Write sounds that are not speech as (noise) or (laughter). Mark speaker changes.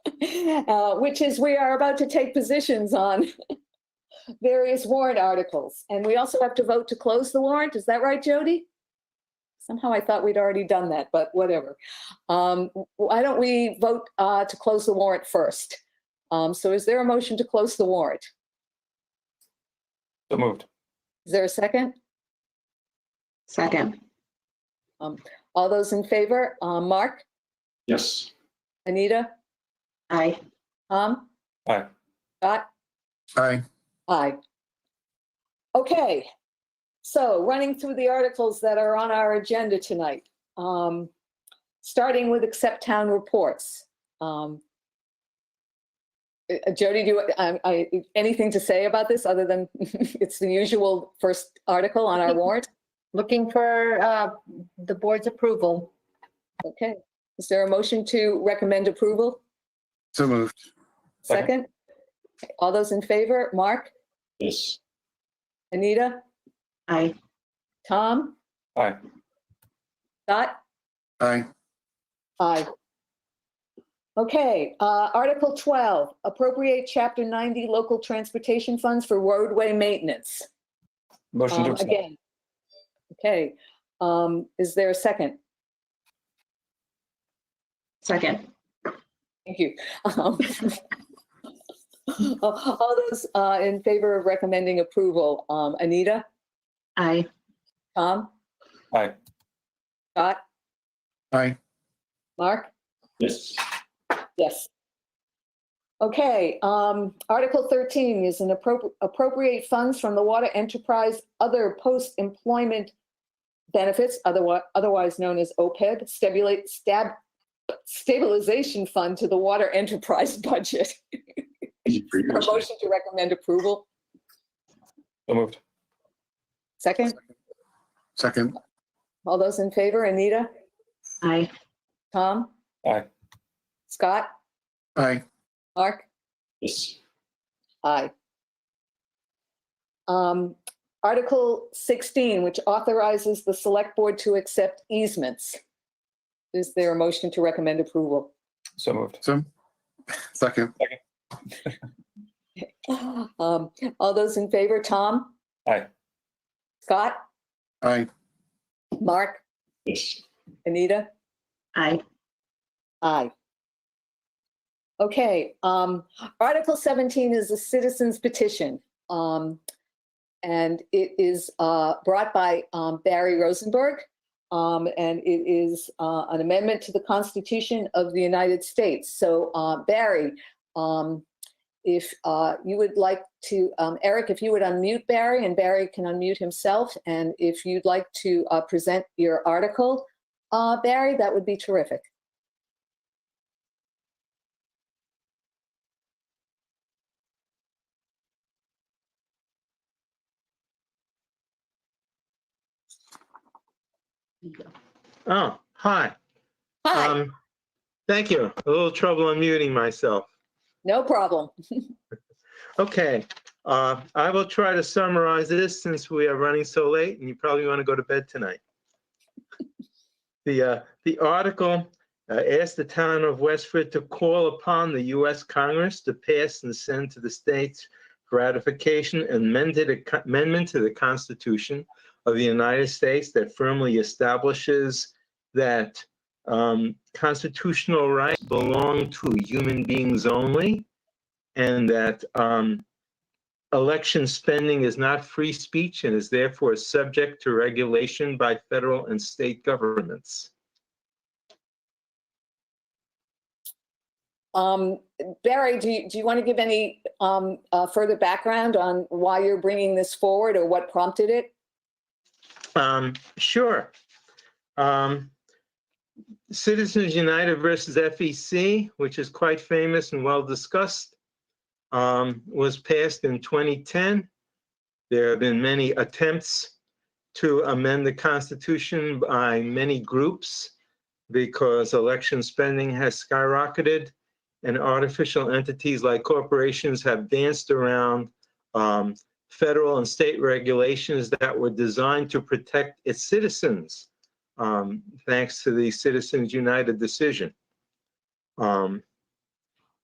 Speaker 1: (laughs) uh, which is we are about to take positions on (laughs) various warrant articles. And we also have to vote to close the warrant. Is that right, Jody? Somehow I thought we'd already done that, but whatever. Um, Why don't we vote uh, to close the warrant first? Um, So is there a motion to close the warrant?
Speaker 2: So moved.
Speaker 1: Is there a second?
Speaker 3: Second,
Speaker 1: All those in favor? Uh, Mark,
Speaker 2: Yes.
Speaker 1: Anita,
Speaker 3: aye.
Speaker 1: Tom?
Speaker 2: Aye.
Speaker 1: Scott?
Speaker 4: Aye.
Speaker 1: Aye. Okay, so running through the articles that are on our agenda tonight. um, Starting with accept town reports. Um, uh, Jody, do you, I, I- anything to say about this other than (laughs) it's the usual first article on our warrant?
Speaker 5: Looking for uh, the board's approval.
Speaker 1: Okay, is there a motion to recommend approval?
Speaker 4: So moved.
Speaker 1: Second? All those in favor? Mark,
Speaker 2: Yes.
Speaker 1: Anita,
Speaker 3: Aye.
Speaker 1: Tom?
Speaker 2: Aye.
Speaker 1: Dot?
Speaker 4: Aye.
Speaker 1: Aye. Okay, uh, Article 12, appropriate Chapter 90 local transportation funds for roadway maintenance.
Speaker 2: Motion to
Speaker 1: Um,
Speaker 2: accept.
Speaker 1: Again. Okay, um, is there a second?
Speaker 3: Second,
Speaker 1: Thank you. Um, (laughs) All those uh, in favor of recommending approval, um, Anita,
Speaker 3: aye.
Speaker 1: Tom?
Speaker 2: Aye.
Speaker 1: Scott,
Speaker 4: Aye.
Speaker 1: Mark?
Speaker 2: Yes.
Speaker 1: Yes. Okay, um, Article 13 is an appropri- appropriate funds from the water enterprise, other post-employment benefits, otherwise, otherwise known as OPEB, stabulate, stab, stabilization fund to the water enterprise (laughs) budget. A
Speaker 2: So
Speaker 1: motion to recommend approval.
Speaker 2: moved.
Speaker 1: Second,
Speaker 4: Second.
Speaker 1: all those in favor, Anita,
Speaker 3: Aye.
Speaker 1: Tom?
Speaker 2: Aye.
Speaker 1: Scott,
Speaker 4: Aye.
Speaker 1: Mark?
Speaker 2: Yes.
Speaker 1: Aye. Um, Article 16, which authorizes the select board to accept easements. Is there a motion to recommend approval?
Speaker 2: So moved.
Speaker 4: So, second.
Speaker 1: Um, All those in favor, Tom?
Speaker 2: Aye.
Speaker 1: Scott?
Speaker 4: Aye.
Speaker 1: Mark?
Speaker 2: Yes.
Speaker 1: Anita?
Speaker 3: Aye.
Speaker 1: Aye. Okay, um, Article 17 is a citizen's petition. Um, and it is, uh, brought by, um, Barry Rosenberg. Um, and it is, uh, an amendment to the Constitution of the United States. So, uh, Barry, um, if, uh, you would like to, um, Eric, if you would unmute Barry and Barry can unmute himself. And if you'd like to, uh, present your article, uh, Barry, that would be terrific.
Speaker 6: Oh, hi.
Speaker 1: Hi.
Speaker 6: Um, Thank you. A little trouble unmuting myself.
Speaker 1: No problem.
Speaker 6: Okay, uh, I will try to summarize this since we are running so late and you probably want to go to bed tonight. (laughs) The, uh, the article uh, asked the town of Westford to call upon the U.S. Congress to pass and send to the states for ratification an amended ac- amendment to the Constitution of the United States that firmly establishes that um, constitutional rights belong to human beings only and that um, election spending is not free speech and is therefore subject to regulation by federal and state governments.
Speaker 1: Um, Barry, do you, do you want to give any um, uh, further background on why you're bringing this forward or what prompted it?
Speaker 6: Um, sure. Um, Citizens United versus FEC, which is quite famous and well discussed, um, was passed in 2010. There have been many attempts to amend the Constitution by many groups because election spending has skyrocketed and artificial entities like corporations have danced around um, federal and state regulations that were designed to protect its citizens, um, thanks to the Citizens United decision. Um,